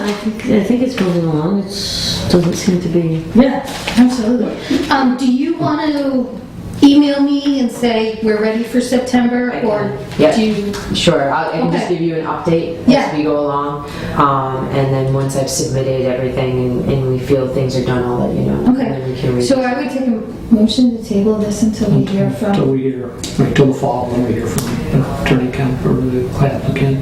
think, I think it's moving along, it's, doesn't seem to be, Yeah, absolutely. Um, do you want to email me and say we're ready for September, or Yeah. do you? Sure, I'll- I can just Okay. give you an update Yeah. as we go along. Um, And then once I've submitted everything and- and we feel things are done, I'll let you know. Okay. And then we can read. So I would take a motion to table this until we hear Till from. we hear, until the fall, when we hear from Attorney Kemp or the applicant.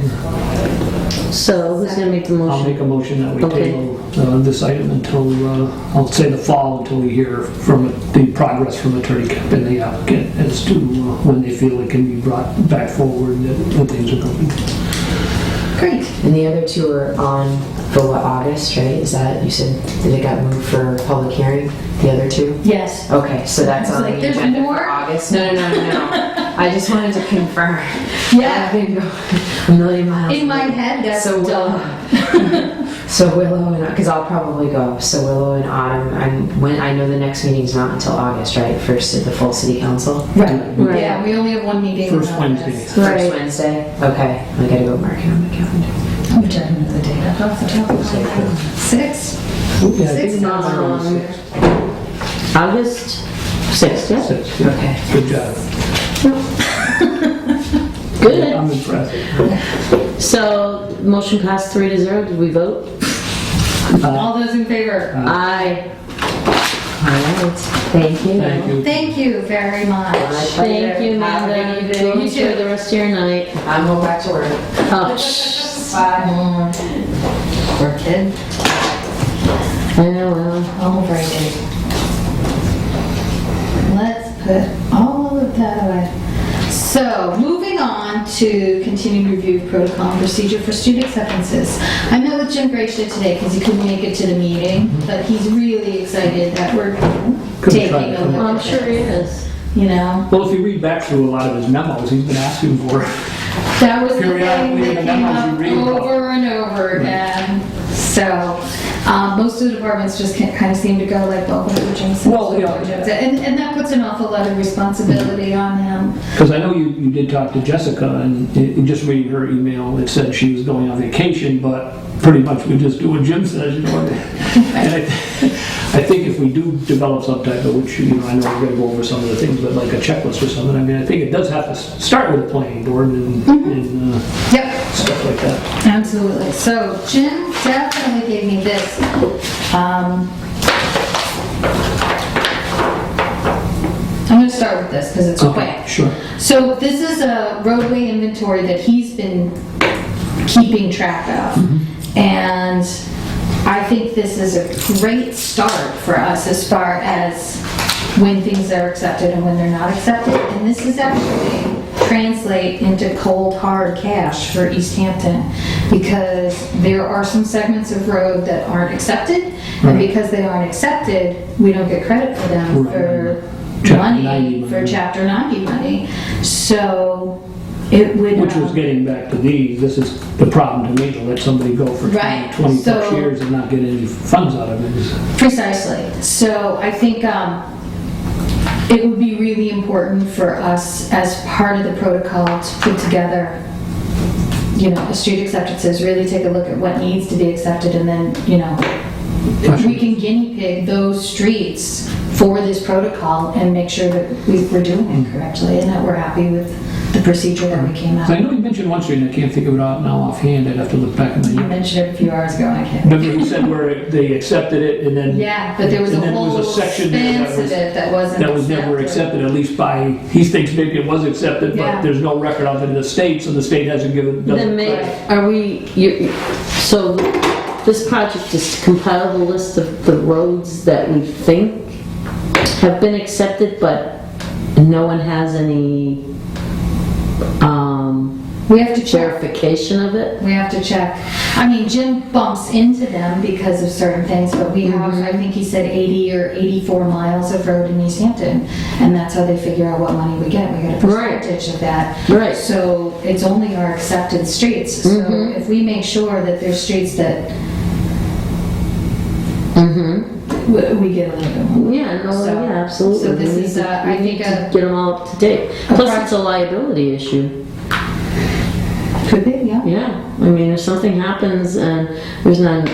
so who's gonna make the I'll motion? make a motion that we Okay. table uh, this item until, uh, I'll say the fall, until we hear from the progress from Attorney Kemp and the applicant as to uh, when they feel it can be brought back forward, that that things are going. Great. And the other two are on for what, August, right? Is that, you said, that it got moved for public hearing, the other two? Yes. Okay, so that's It's on the like, there's agenda more? for August? No, no, no, no, no. I just wanted to confirm. I've Yeah. been going a million miles. In my head, that's So Willow, done. so Willow and because I'll probably go. So Willow and Autumn. I'm when I know the next meeting's not until August, right? First at the full city council. Right. Right. Yeah, we only have one meeting. in First August. Wednesday. First Wednesday. Okay, I gotta go mark it on my calendar. I'm checking the data. Off the top of my head. Six. Oh, Yeah, I Six think now they're on Um, six. August sixth, yeah, Six, yeah. Okay. Good job. good. I'm impressed. So, motion passed three to zero, did we vote? All those in favor? Aye. All right. Thank you. Thank you. Thank you very much. My pleasure. Thank you, Have a Amanda. good Go evening. enjoy the rest of your night. I'm going back to work. Oh, shh. Bye. Poor kid. I know, well, Oh, very good. Let's put all of that away. So, moving on to continued review of protocol and procedure for student acceptances. I met with Jim Gracia today because he couldn't make it to the meeting, but he's really excited that we're Couldn't taking try a to come look. Well, I'm at sure he this, is. You know, Well, if you read back through a lot of his memos, he's been asking for it. that was the thing Periodically in that the came memos you up read Hmm. about. over and over again. So, um, most of the departments just kind of seem to go like, well, what did Jim say? Well, yeah. Hmm. And, and that puts an awful lot of responsibility on him. Because I know you, you did talk to Jessica, and i- in just reading her email, it said she was going on vacation, but pretty much we just do what Jim says, you know. what I mean? And I, th- I think if we do develop some type of, which, you know, I know we're gonna go over some of the things, but like a checklist or something, I mean, I think it does have to s- start with a planning board and, Mm-hmm. and uh, Yep. stuff like that. Absolutely. So Jim definitely gave me this. Um, I'm going to start with this because it's quick. Sure. So this is a roadway inventory that he's been keeping track of. Mm-hmm. And I think this is a great start for us as far as when things are accepted and when they're not accepted. And this is actually translate into cold, hard cash for East Hampton because there are some segments of road that aren't accepted. And Right. because they aren't accepted, we don't get credit for them Right. for Chapter money, 90 for money. chapter 90 money. So it would. Which was um, getting back to these, this is the problem to me, to let somebody go for Right, 20 plus so- years and not get any funds out of it. is- Precisely. So I think um, it would be really important for us as part of the protocol to put together, you know, the street acceptances, really take a look at what needs to be accepted and then, you know, we can guinea pig those streets for this protocol and make sure that we- we're doing Mm. it correctly and that we're happy with the procedure that we came So I out. know you mentioned one street, and I can't think of it out now offhand, I'd have to look back in You the, mentioned it a few hours ago, and I can't. remember you said where they accepted it, and then... Yeah, but there was a And then there was a whole section there that expanse of was- it that wasn't. That was never accepted, at least by, he thinks maybe it was accepted, Yeah. but there's no record of it in the state, so the state hasn't given... Then doesn't- may, are we, you, so this project is to compile the list of the roads that we think have been accepted, but no one has any, um, We have to check, verification of it? we have to check. I mean, Jim bumps into them because of certain things, but we have, Mm-hmm. I think he said 80 or 84 miles of road in East Hampton, and that's how they figure out what money we get, we get a Right. percentage of that. Right. So it's only our accepted streets, so Mm-hmm. if we make sure that there's streets that Mm-hmm. w- we get a little bit more. Yeah, no, So- yeah, absolutely. so this We need is, to- uh, we I need think to a- Get them all up to date. a Plus, pro- it's a liability issue. Could be, yeah. Yeah, I mean, if something happens and there's not an